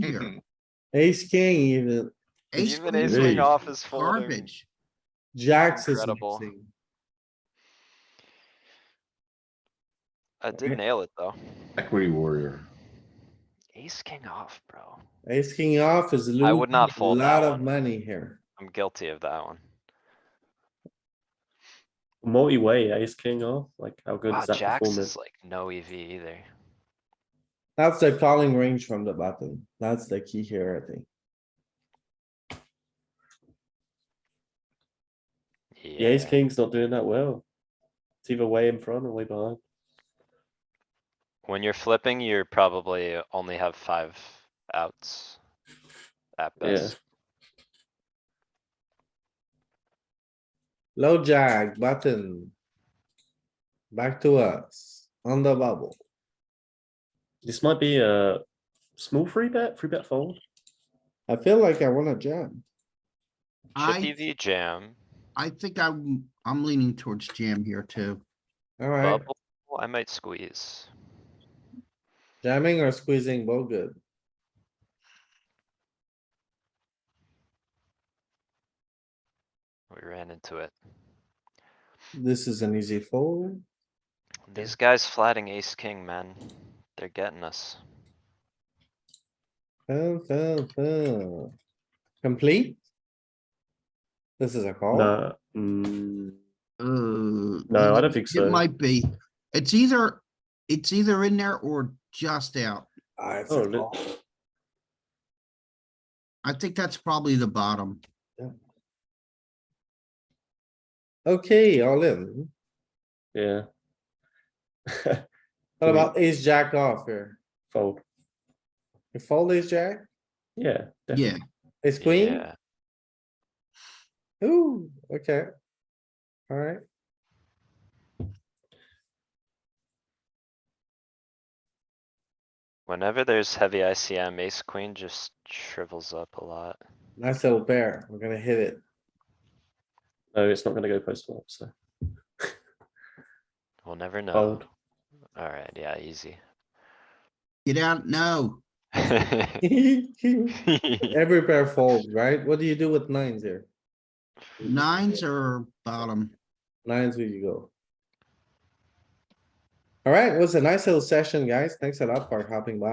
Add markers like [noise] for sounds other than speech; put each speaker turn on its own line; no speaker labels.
here.
Ace, king even,
Ace
Even
queen
Mm-hmm. ace
is
king off is folding.
Garbage.
jacks is
Incredible.
mixing.
I did nail it, though.
Equity warrior.
Ace king off, bro.
Ace, king off is
I
losing
would not
a
fold that
lot of
one.
money here.
I'm guilty of that one.
multi-way ace king off. Like how good
Wow,
is that
jacks
performance?
is like no EV either.
That's the calling range from the button. That's the key here, I think.
The
Yeah,
ace king's not doing that well. It's either way in front or way behind.
when you're flipping, you're probably only have five outs. At
Yeah.
best.
Low jack, button. Back to us, on the bubble.
This might be a small free bet, free bet fold.
I feel like I wanna jam.
I-
Chip EV E jam,
I think I'm, I'm leaning towards jam here too.
Alright,
bubble, I might squeeze.
jamming or squeezing, both good.
We ran into it.
This is an easy fold.
These guys flatting ace king, man. They're getting us.
Fill, fill, fill. Complete? This is a call.
Nah, mm,
Uh.
no, I don't think so.
It might be. It's either, it's either in there or just out.
Ah, it's a
Oh, look.
call.
I think that's probably the bottom.
Okay, all in.
yeah.
What about ace jack off here?
fold?
You fold ace jack,
Yeah, definitely.
Yeah,
ace queen?
Yeah,
Ooh, okay. Alright,
whenever there's heavy ICM, ace queen just shrivels up a lot.
nice little pair. We're gonna hit it.
No, it's not going to go post flop. So
We'll
Oh.
never know.
fold.
Alright, yeah, easy. [laughs]
get out now.
[laughs] Every pair folds, right? What do you do with nines here?
Nines are bottom.
Nines, where you go? Alright, it was a nice little session, guys. Thanks a lot for hopping by.